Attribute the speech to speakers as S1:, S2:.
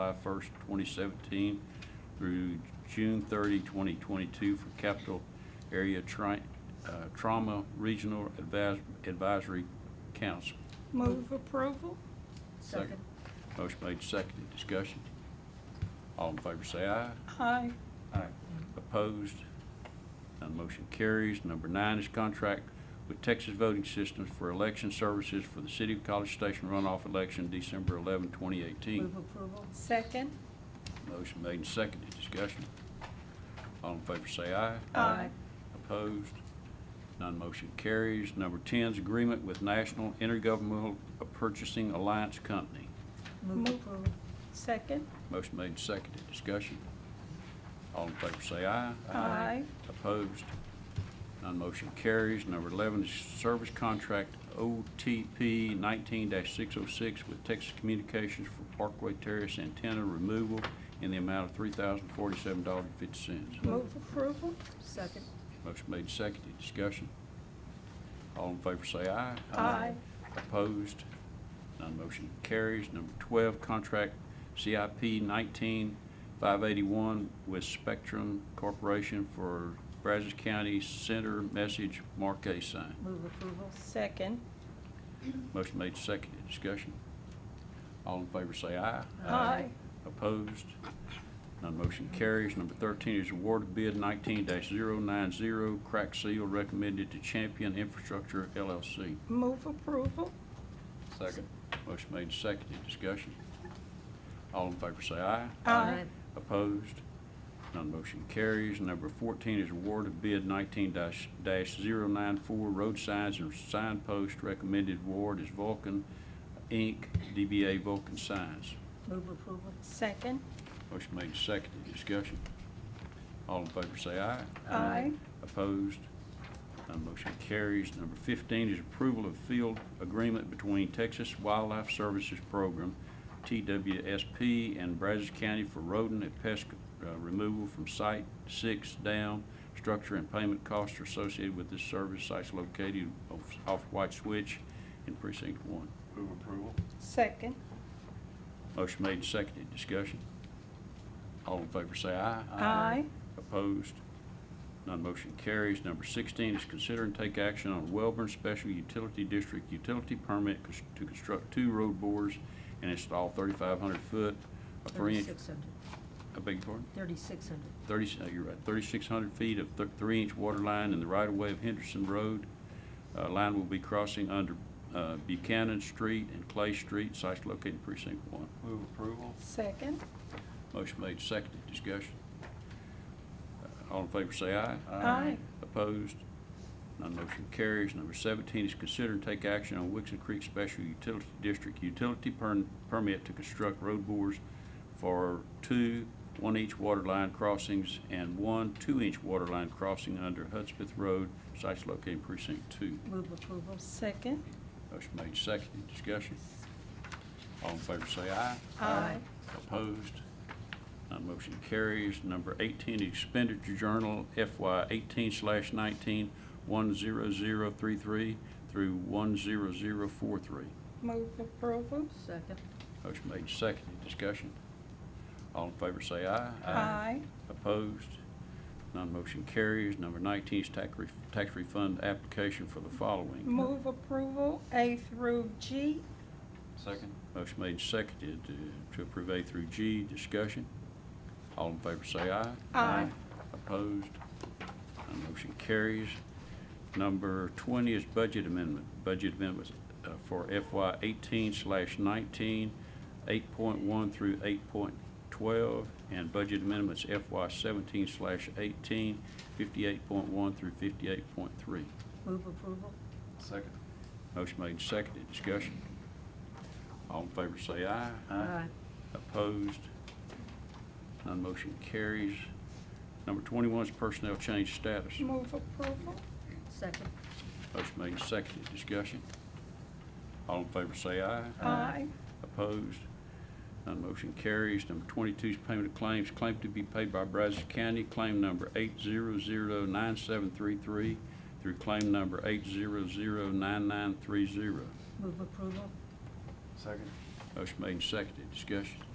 S1: July 1st, 2017 through June 30, 2022 for Capital Area Tri- uh, Trauma Regional Advis- Advisory Council.
S2: Move approval?
S3: Second.
S1: Motion made, seconded, discussion. All in favor say aye.
S2: Aye.
S1: Aye. Opposed? None motion carries. Number nine is contract with Texas Voting Systems for election services for the City of College Station runoff election December 11, 2018.
S3: Move approval.
S2: Second?
S1: Motion made and seconded. Discussion. All in favor say aye.
S2: Aye.
S1: Opposed? None motion carries. Number 10 is agreement with National Intergovernmental Purchasing Alliance Company.
S3: Move
S2: Move.
S3: approval.
S2: Second?
S1: Motion made and seconded. Discussion. All in favor say aye.
S2: Aye.
S1: Opposed? None motion carries. Number 11 is service contract OTP 19-606 with Texas Communications for Parkway Terrace antenna removal in the amount of $3,047.50.
S2: Move approval?
S3: Second.
S1: Motion made, and seconded. Discussion. All in favor say aye.
S2: Aye.
S1: Opposed? None motion carries. Number 12, contract CIP 19-581 with Spectrum Corporation for Brazos County Center Message Marquee Sign.
S3: Move approval.
S2: Second?
S1: Motion made, seconded. Discussion. All in favor say aye.
S2: Aye.
S1: Opposed? None motion carries. Number 13 is award bid 19-090, crack seal recommended to Champion Infrastructure LLC.
S2: Move approval?
S1: Second. Motion made, and seconded. Discussion. All in favor say aye.
S2: Aye.
S1: Opposed? None motion carries. Number 14 is award of bid 19-094 road signs and signpost recommended award is Vulcan Inc., DBA Vulcan Signs.
S3: Move approval.
S2: Second?
S1: Motion made, and seconded. Discussion. All in favor say aye.
S2: Aye.
S1: Opposed? None motion carries. Number 15 is approval of field agreement between Texas Wildlife Services Program, TWSP, and Brazos County for rodent and pest uh, removal from Site 6 down. Structure and payment costs are associated with this service. Site's located off- off White Switch in Precinct 1.
S4: Move approval.
S2: Second?
S1: Motion made and seconded. Discussion. All in favor say aye.
S2: Aye.
S1: Opposed? None motion carries. Number 16 is consider and take action on Welborn Special Utility District utility permit cons- to construct two road bores and install 3,500 foot, a three-inch,
S3: Thirty-six hundred.
S1: I beg your pardon?
S3: Thirty-six hundred.
S1: 30, uh, you're right, 3,600 feet of th- three-inch water line in the right-of-way of Henderson Road. Uh, Line will be crossing under uh, Buchanan Street and Clay Street, sites located in precinct one.
S4: Move approval.
S2: Second?
S1: Motion made, seconded, discussion. Uh, All in favor say aye.
S2: Aye.
S1: Opposed? None motion carries. Number 17 is consider and take action on Wixon Creek Special Utility District utility per- permit to construct road bores for two one-inch water line crossings and one two-inch water line crossing under Hudspeth Road, sites located in precinct two.
S3: Move approval.
S2: Second?
S1: Motion made, seconded, discussion. All in favor say aye.
S2: Aye.
S1: Opposed? None motion carries. Number 18, expenditure journal FY 18 slash 19, 10033 through 10043.
S2: Move approval?
S3: Second.
S1: Motion made, seconded. Discussion. All in favor say aye.
S2: Aye.
S1: Opposed? None motion carries. Number 19 is tax ref- tax refund application for the following.
S2: Move approval A through G?
S4: Second.
S1: Motion made, seconded uh, to approve A through G. Discussion. All in favor say aye.
S2: Aye.
S1: Opposed? None motion carries. Number 20 is budget amendment. Budget amendments uh, for FY 18 slash 19, 8.1 through 8.12, and budget amendments FY 17 slash 18, 58.1 through 58.3.
S3: Move approval.
S4: Second.
S1: Motion made, seconded. Discussion. All in favor say aye.
S3: Aye.
S1: Opposed? None motion carries. Number 21 is personnel change status.
S2: Move approval?
S3: Second.
S1: Motion made and seconded. Discussion. All in favor say aye.
S2: Aye.
S1: Opposed? None motion carries. Number 22 is payment of claims. Claim to be paid by Brazos County, claim number 8009733 through claim number 8009930.
S3: Move approval.
S4: Second.
S1: Motion made and seconded. Discussion.